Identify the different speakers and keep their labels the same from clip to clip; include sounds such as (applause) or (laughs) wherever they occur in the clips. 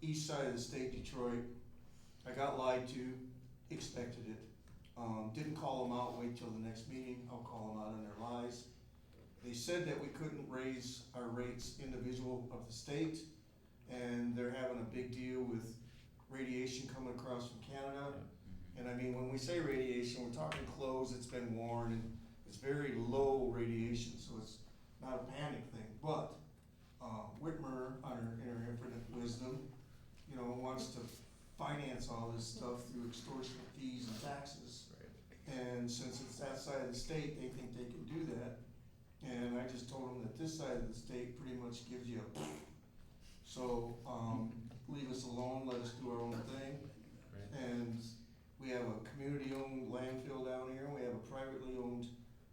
Speaker 1: east side of the state, Detroit. I got lied to, expected it. Um, didn't call them out, wait till the next meeting, I'll call them out on their lies. They said that we couldn't raise our rates individual of the state, and they're having a big deal with radiation coming across from Canada. And I mean, when we say radiation, we're talking clothes, it's been worn, and it's very low radiation, so it's not a panic thing, but, uh, Whitmer, on her, in her infinite wisdom, you know, wants to finance all this stuff through extortion fees and taxes. And since it's that side of the state, they think they can do that. And I just told them that this side of the state pretty much gives you a so, um, leave us alone, let us do our own thing. And we have a community-owned landfill down here, we have a privately owned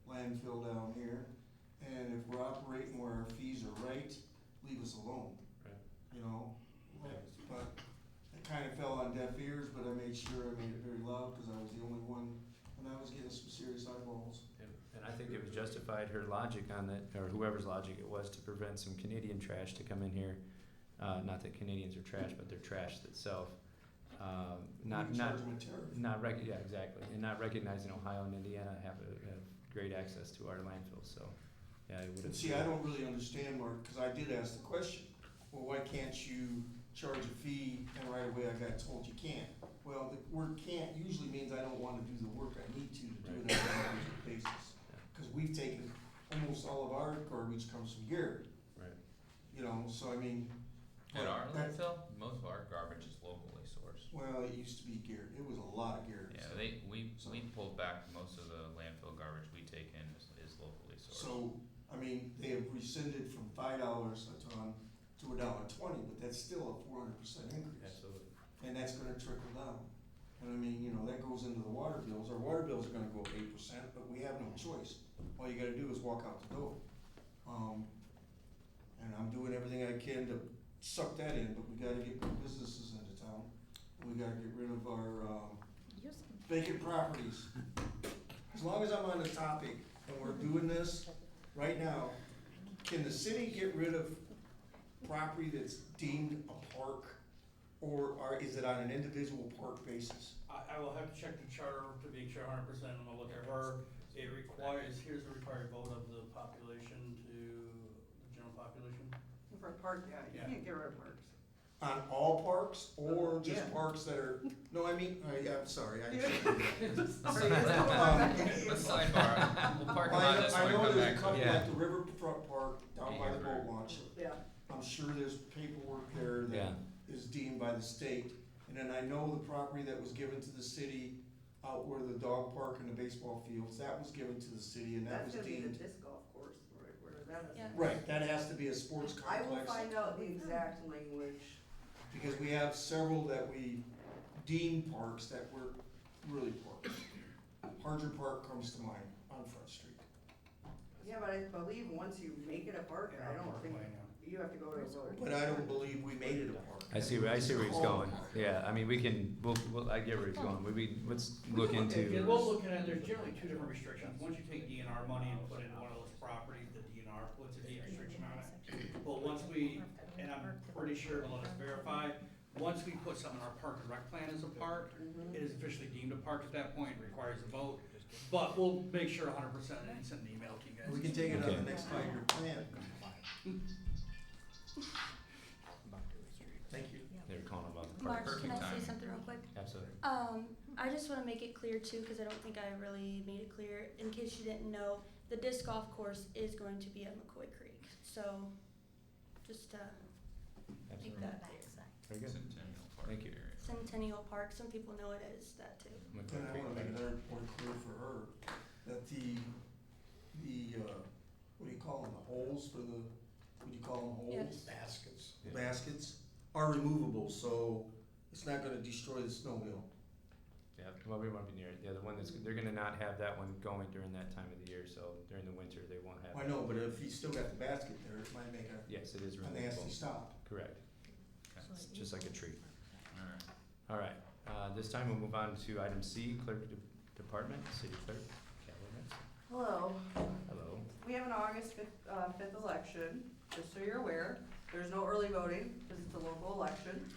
Speaker 1: landfill down here. And if we're operating where our fees are right, leave us alone.
Speaker 2: Right.
Speaker 1: You know, but it kinda fell on deaf ears, but I made sure I made it very loud, cause I was the only one, and I was getting some serious eyeballs.
Speaker 2: And- And I think it was justified her logic on that, or whoever's logic it was, to prevent some Canadian trash to come in here. Uh, not that Canadians are trash, but they're trash itself. Um, not,
Speaker 1: We
Speaker 2: not,
Speaker 1: charge them a tariff.
Speaker 2: not rec- yeah, exactly. And not recognizing Ohio and Indiana have, a, have great access to our landfills, so, yeah, it would have.
Speaker 1: And see, I don't really understand, Mark, because I did ask the question, well, why can't you charge a fee? And right away I got told you can't. Well, the word can't usually means I don't want to do the work I need to to do it on an individual basis. Because we've taken, almost all of our garbage comes from Garrett,
Speaker 2: Right.
Speaker 1: you know, so I mean.
Speaker 3: At our
Speaker 1: that-
Speaker 3: landfill, most of our garbage is locally sourced.
Speaker 1: Well, it used to be Garrett, it was a lot of Garrett.
Speaker 3: Yeah, they, we, we pulled back most of the landfill garbage we take in is, is locally sourced.
Speaker 1: So, I mean, they have rescinded from five dollars a ton to a dollar twenty, but that's still a four hundred percent increase. (laughs)
Speaker 2: Absolutely.
Speaker 1: and that's gonna trickle down. And I mean, you know, that goes into the water bills, our water bills are gonna go up eight percent, but we have no choice. All you gotta do is walk out the door. Um, and I'm doing everything I can to suck that in, but we gotta get good businesses into town. We gotta get rid of our, um, vacant properties. As long as I'm on the topic and we're doing this right now, can the city get rid of property that's deemed a park? Or are, is it on an individual park basis?
Speaker 4: I, I will have to check the charter to make sure hundred percent, I'm gonna look at her. It requires, here's the required vote of the population to, the general population.
Speaker 5: For a park, yeah,
Speaker 4: Yeah.
Speaker 5: you can't get rid of
Speaker 1: (laughs)
Speaker 5: parks.
Speaker 1: On all parks or
Speaker 5: Yeah.
Speaker 1: just parks that are, no, I mean, uh, yeah, I'm sorry, I.
Speaker 5: Sorry, it's come back.
Speaker 1: (laughs)
Speaker 3: Let's sidebar, we'll park
Speaker 1: I
Speaker 3: on
Speaker 1: know-
Speaker 3: this
Speaker 1: I
Speaker 3: one,
Speaker 1: know
Speaker 3: come
Speaker 1: there's a
Speaker 3: back.
Speaker 1: couple
Speaker 2: yeah.
Speaker 1: at the riverfront park down by the boat launch.
Speaker 5: Yeah,
Speaker 1: I'm sure there's paperwork there that
Speaker 2: Yeah,
Speaker 1: is deemed by the state. And then I know the property that was given to the city out where the dog park and the baseball fields, that was given to the city and that was
Speaker 5: that's gonna be the
Speaker 1: deemed.
Speaker 5: disc golf course, where, where that is.
Speaker 6: Yeah.
Speaker 1: Right, that has to be a sports
Speaker 5: I will
Speaker 1: complex,
Speaker 5: find out the exact language.
Speaker 1: because we have several that we deem parks that were really parks. Harger Park comes to mind on Front Street.
Speaker 5: Yeah, but I believe once you make it a park, I don't think, you have to go to a vote.
Speaker 1: But I don't believe we made it a park.
Speaker 2: I see, where- I see where he's
Speaker 1: It's called a
Speaker 2: going.
Speaker 1: park.
Speaker 2: Yeah, I mean, we can, we'll, we'll, I get where he's going. We- We, let's look
Speaker 4: Yeah,
Speaker 2: into.
Speaker 4: we'll look at it, there's generally two different restrictions, once you take DNR money and put it in one of those properties, the DNR puts a deed restriction on it. But once we, and I'm pretty sure, let us verify, once we put something in our park and rec plan as a park,
Speaker 5: Mm-hmm.
Speaker 4: it is officially deemed a park at that point, requires a vote, but we'll make sure hundred percent and send an email to you guys.
Speaker 1: We can take it on
Speaker 2: Okay.
Speaker 1: the next five-year plan. Thank you.
Speaker 2: They were calling about the park.
Speaker 6: Mark, can
Speaker 3: Perfect
Speaker 6: I
Speaker 3: timing.
Speaker 6: say something real quick?
Speaker 2: Absolutely.
Speaker 6: Um, I just want to make it clear too, because I don't think I really made it clear. In case you didn't know, the disc golf course is going to be at McCoy Creek. So, just to make
Speaker 2: Absolutely.
Speaker 6: that clear.
Speaker 2: Very good.
Speaker 3: Centennial Park
Speaker 2: Thank you.
Speaker 3: area.
Speaker 6: Centennial Park. Some people know it as that too.
Speaker 1: And I wanna make another point clear for her, that the, the, uh, what do you call them, the holes for the, what do you call them, holes?
Speaker 6: Yes.
Speaker 1: Baskets.
Speaker 2: Yeah.
Speaker 1: Baskets are removable, so it's not gonna destroy the snowmobile.
Speaker 2: Yeah, well, we won't be near it. Yeah, the one that's, they're gonna not have that one going during that time of the year, so during the winter, they won't have.
Speaker 1: I
Speaker 2: it.
Speaker 1: know, but if you still got the basket there, it might make a,
Speaker 2: Yes, it is
Speaker 1: a nasty
Speaker 2: removable,
Speaker 1: stop.
Speaker 2: correct.
Speaker 3: Okay.
Speaker 2: It's just like a tree.
Speaker 3: Alright.
Speaker 2: All right, uh, this time we'll move on to item C, clerk de- department, city clerk, Kelly
Speaker 5: Hello,
Speaker 2: Knutson. Hello.
Speaker 5: we have an August fifth, uh, fifth election, just so you're aware, there's no early voting, cause it's a local election.